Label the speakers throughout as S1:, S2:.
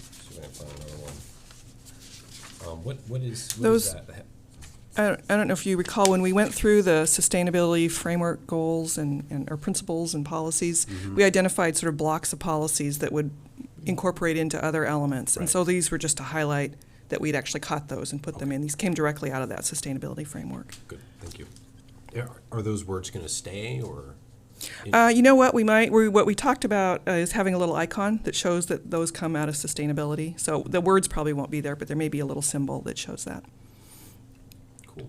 S1: find another one. Um, what, what is, what is
S2: Those-
S1: that?
S2: I don't, I don't know if you recall, when we went through the sustainability framework goals and, and, or principles and policies, we identified sort of blocks of policies that would incorporate into other elements. And so these were just to highlight that we'd actually caught those and put them in. These came directly out of that sustainability framework.
S1: Good, thank you. Are- Are those words gonna stay, or?
S2: Uh, you know what, we might, we, what we talked about uh, is having a little icon that shows that those come out of sustainability. So the words probably won't be there, but there may be a little symbol that shows that.
S1: Cool.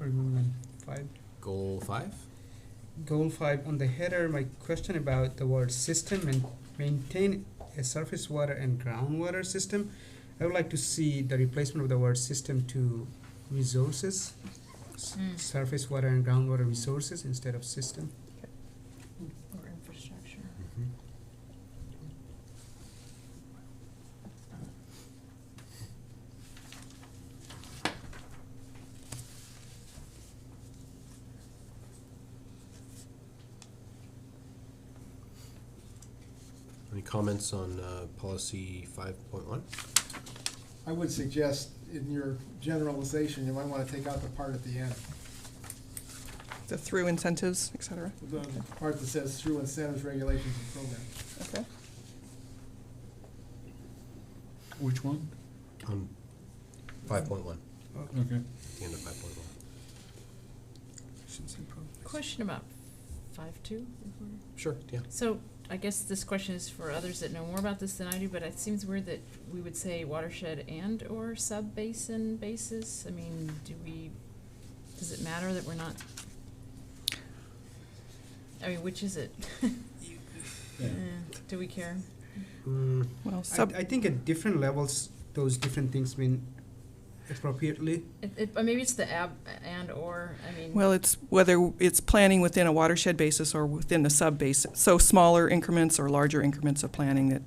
S3: Or moving five.
S1: Goal five?
S3: Goal five on the header. My question about the word system and maintain a surface water and groundwater system. I would like to see the replacement of the word system to resources, s-
S4: Mm.
S3: surface water and groundwater resources instead of system.
S4: Or infrastructure.
S1: Any comments on, uh, policy five point one?
S5: I would suggest in your generalization, you might want to take out the part at the end,
S2: The through incentives, et cetera.
S5: the part that says through incentives, regulations, and programs.
S2: Okay.
S6: Which one?
S1: On Um, five point one,
S6: Okay.
S1: the end of five point one.
S3: Actions and progress.
S4: Question about five two.
S1: Sure, yeah.
S4: So I guess this question is for others that know more about this than I do, but it seems weird that we would say watershed and or sub-basin basis. I mean, do we, does it matter that we're not? I mean, which is it?
S6: Yeah.
S4: Eh, Do we care?
S1: Mm,
S2: Well, sub,
S3: I, I think at different levels, those different things mean appropriately.
S4: It, it, or maybe it's the ab, and or, I mean.
S2: Well, it's whether it's planning within a watershed basis or within the sub-basin. So smaller increments or larger increments of planning that,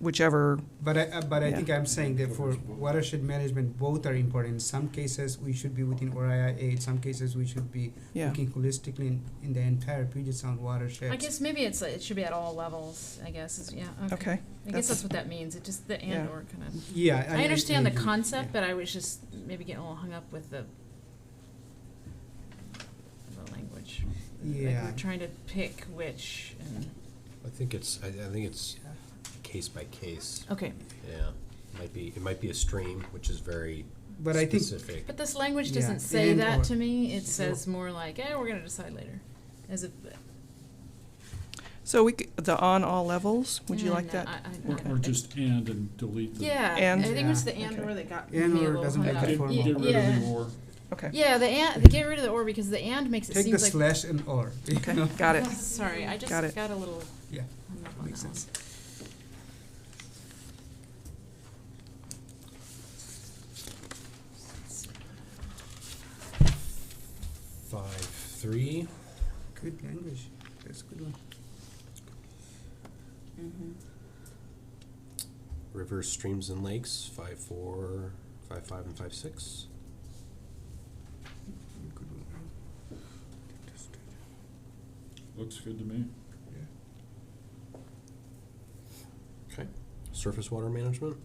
S2: whichever,
S3: But I, uh, but I
S2: Yeah.
S3: think I'm saying that for watershed management, both are important. In some cases, we should be within ORIA In some cases, we should be
S2: yeah.
S3: looking holistically in, in the entire Puget Sound watershed.
S4: I guess maybe it's, like it should be at all levels, I guess, is, yeah, okay.
S2: Okay,
S4: I guess
S2: that's-
S4: that's what that means, it just, the and
S2: Yeah.
S4: or kind of.
S3: Yeah,
S4: I understand the
S3: agree.
S4: concept, but I was just maybe getting a little hung up with the the language. Like
S3: Yeah.
S4: we're trying to pick which and,
S1: I think it's, I, I think it's
S3: Yeah.
S1: case by case,
S4: okay.
S1: yeah. Might be, it might be a stream, which is very
S3: But I think
S1: specific.
S4: But this language
S3: Yeah,
S4: doesn't say
S3: and
S4: that
S3: or.
S4: to me, it says more like, eh, we're gonna decide later, as if.
S2: So we, c- the on all levels, would you
S4: Mm,
S2: like
S4: I-
S2: that?
S4: I-
S6: Or,
S4: I-
S6: or just and and delete the.
S4: Yeah,
S2: And?
S4: I think it was the
S2: Yeah.
S4: and
S2: Okay.
S4: or that got me a
S3: And or
S4: little
S3: doesn't
S4: hung
S3: make
S4: up.
S3: it
S6: Get,
S3: formal.
S6: get rid of
S4: Yeah.
S6: the or.
S2: Okay,
S4: Yeah, the and, get rid of the or because the and makes it
S3: take
S4: seem
S3: the
S4: like.
S3: slash and or. you
S2: okay,
S3: know?
S2: got it.
S4: Oh, Sorry, I just
S2: Got it.
S4: got a little
S3: Yeah,
S4: hung up on
S3: makes
S4: that one.
S3: sense.
S1: Five, three,
S3: Good language. That's a good one.
S1: rivers, streams, and lakes, five, four, five, five, and five, six.
S3: Good one.
S6: Looks good to me.
S1: Okay. Surface water management.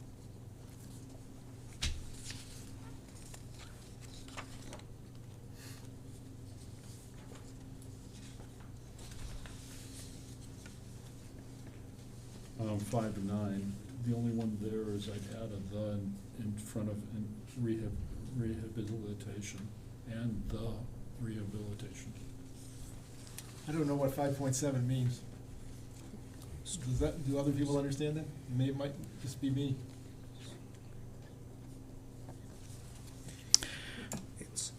S6: Um, five to nine, the only one there is I'd add a the in- in front of in rehab, rehabilitation and the rehabilitation.
S5: I don't know what five point seven means. Does that, do other people understand that? May, might just be me.
S3: It's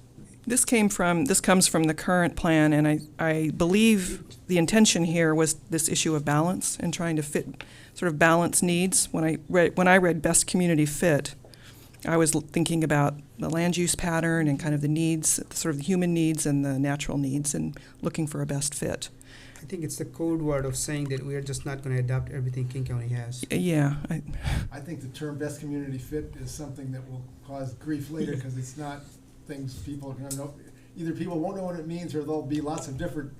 S2: This came from, this comes from the current plan, and I, I believe the intention here was this issue of balance and trying to fit, sort of balance needs. When I read, when I read best community fit, I was l- thinking about the land use pattern and kind of the needs, sort of the human needs and the natural needs, and looking for a best fit.
S3: I think it's the code word of saying that we are just not going to adopt everything King County has.
S2: Y- Yeah, I,
S5: I think the term best community fit is something that will cause grief later, because it's not things people are gonna know. Either people won't know what it means, or there'll be lots of different